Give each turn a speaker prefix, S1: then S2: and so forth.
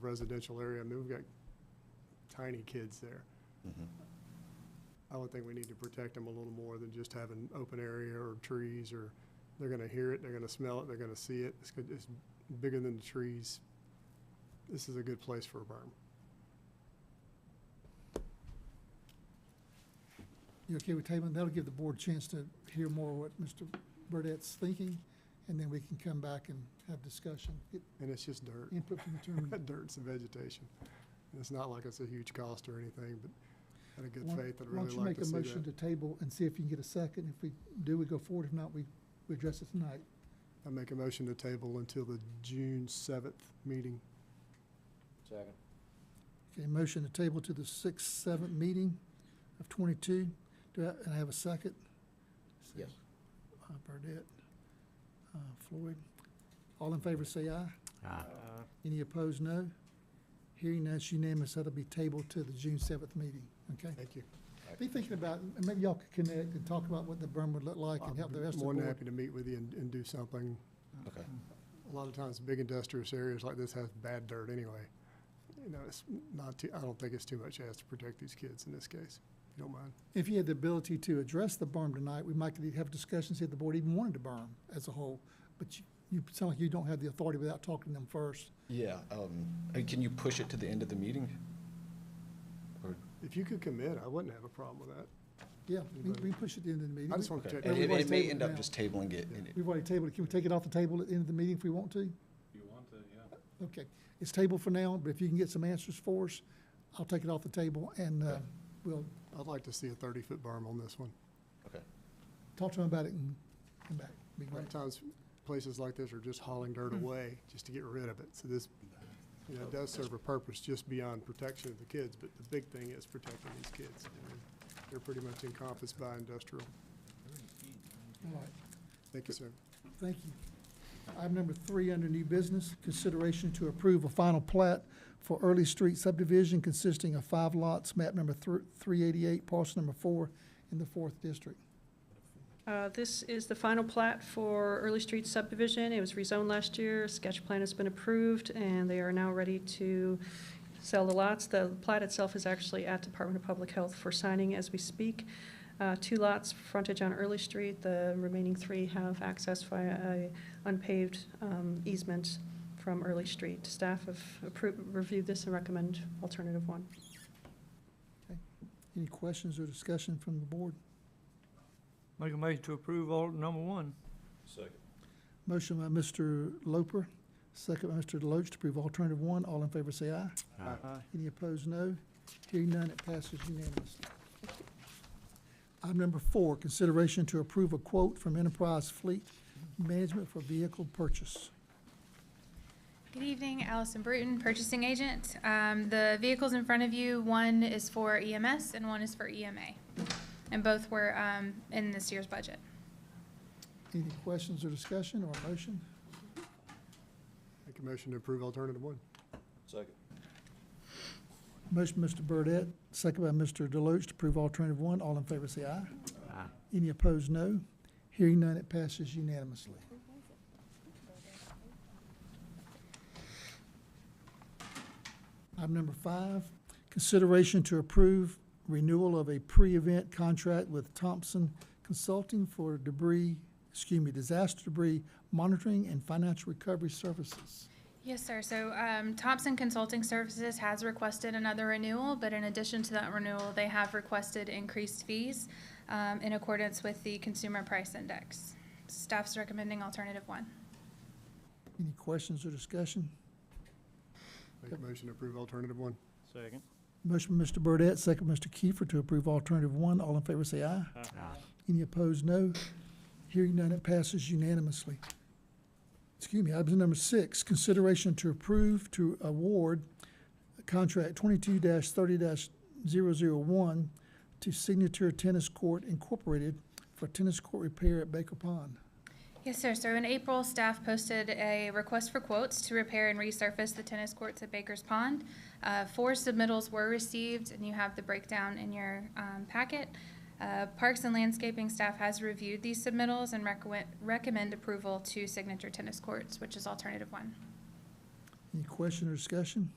S1: residential area. I mean, we've got tiny kids there. I would think we need to protect them a little more than just having open area or trees or, they're gonna hear it, they're gonna smell it, they're gonna see it. It's good, it's bigger than the trees. This is a good place for a berm.
S2: You okay with tabling? That'll give the board a chance to hear more what Mr. Burdett's thinking, and then we can come back and have discussion, get
S1: And it's just dirt.
S2: input from the attorney.
S1: That dirt's vegetation. And it's not like it's a huge cost or anything, but out of good
S2: Why-
S1: faith, I'd
S2: Why
S1: really
S2: don't you
S1: like
S2: make
S1: to
S2: a
S1: see
S2: motion
S1: that.
S2: to table and see if you can get a second? If we do, we go forward. If not, we, we address it tonight.
S1: I make a motion to table until the June seventh meeting.
S3: Second.
S2: Okay, motion to table to the sixth, seventh meeting of twenty-two. Do I, and I have a second?
S3: Yes.
S2: Uh, Burdette, uh, Floyd. All in favor, say aye. Any opposed, no? Hearing none, it's unanimous, that'll be tabled to the June seventh meeting, okay?
S1: Thank you.
S2: Be thinking about, and maybe y'all could connect and talk about what the berm would look like and help the rest of the
S1: More than
S2: board.
S1: happy to meet with you and, and do something.
S3: Okay.
S1: A lot of times, big industrious areas like this has bad dirt anyway. You know, it's not too, I don't think it's too much asked to protect these kids in this case, if you don't mind.
S2: If you had the ability to address the berm tonight, we might could have discussions if the board even wanted to berm as a whole. But you, you sound like you don't have the authority without talking to them first.
S4: Yeah, um, uh, can you push it to the end of the meeting? Or,
S1: If you could commit, I wouldn't have a problem with that.
S2: Yeah, we, we can push it to the end of the meeting.
S1: I just want to
S4: okay,
S1: protect.
S4: and it,
S1: everybody.
S4: it may
S2: tabled
S4: end
S2: it now.
S4: up just tabling it, and it-
S2: We've already tabled it. Can we take it off the table at the end of the meeting if we want to?
S5: You want to, yeah.
S2: Okay, it's tabled for now, but if you can get some answers for us, I'll take it off the table and, uh, we'll
S1: I'd like to see a thirty-foot berm on this one.
S4: okay.
S2: talk to them about it and come back. Be
S1: A lot
S2: great.
S1: of times, places like this are just hauling dirt away just to get rid of it. So this, you know, it does serve a purpose just beyond protection of the kids, but the big thing is protecting these kids. I mean, They're pretty much encompassed by industrial.
S2: All right,
S1: Thank you, sir.
S2: thank you. Item number three under new business, consideration to approve a final plat for Early Street subdivision consisting of five lots, map number three eighty-eight, parcel number four in the fourth district.
S6: Uh, This is the final plat for Early Street subdivision. It was rezoned last year. Sketch plan has been approved, and they are now ready to sell the lots. The plat itself is actually at Department of Public Health for signing as we speak. Uh, Two lots, frontage on Early Street. The remaining three have access via a unpaved um, easement from Early Street. Staff have appro- reviewed this and recommend alternative one.
S2: Any questions or discussion from the board?
S7: Make a motion to approve alternate number one.
S5: Second.
S2: Motion by Mr. Loper, second by Mr. Deloach to approve alternative one. All in favor say aye.
S7: Aye.
S2: Any opposed, no. Hearing none, it passes unanimously. Item number four, consideration to approve a quote from Enterprise Fleet Management for vehicle purchase.
S8: Good evening, Allison Bruton, purchasing agent. Um, The vehicles in front of you, one is for EMS and one is for EMA. And both were um, in this year's budget.
S2: Any questions or discussion or a motion?
S1: Make a motion to approve alternative one.
S5: Second.
S2: Motion, Mr. Burdette, second by Mr. Deloach to approve alternative one. All in favor, say aye.
S7: Aye.
S2: Any opposed, no. Hearing none, it passes unanimously. Item number five, consideration to approve renewal of a pre-event contract with Thompson Consulting for debris, excuse me, disaster debris monitoring and financial recovery services.
S8: Yes, sir. So um, Thompson Consulting Services has requested another renewal, but in addition to that renewal, they have requested increased fees um, in accordance with the Consumer Price Index. Staff's recommending alternative one.
S2: Any questions or discussion?
S1: Make a motion to approve alternative one.
S7: Second.
S2: Motion by Mr. Burdette, second by Mr. Kiefer to approve alternative one. All in favor say aye. Any opposed, no. Hearing none, it passes unanimously. Excuse me, item number six, consideration to approve to award contract twenty-two thirty one to Signature Tennis Court Incorporated for tennis court repair at Baker Pond.
S8: Yes, sir. So in April, staff posted a request for quotes to repair and resurface the tennis courts at Baker's Pond. Uh, Four submittals were received, and you have the breakdown in your um, packet. Uh, Parks and landscaping staff has reviewed these submittals and recommend- recommend approval to Signature Tennis Courts, which is alternative one.
S2: Any question or discussion?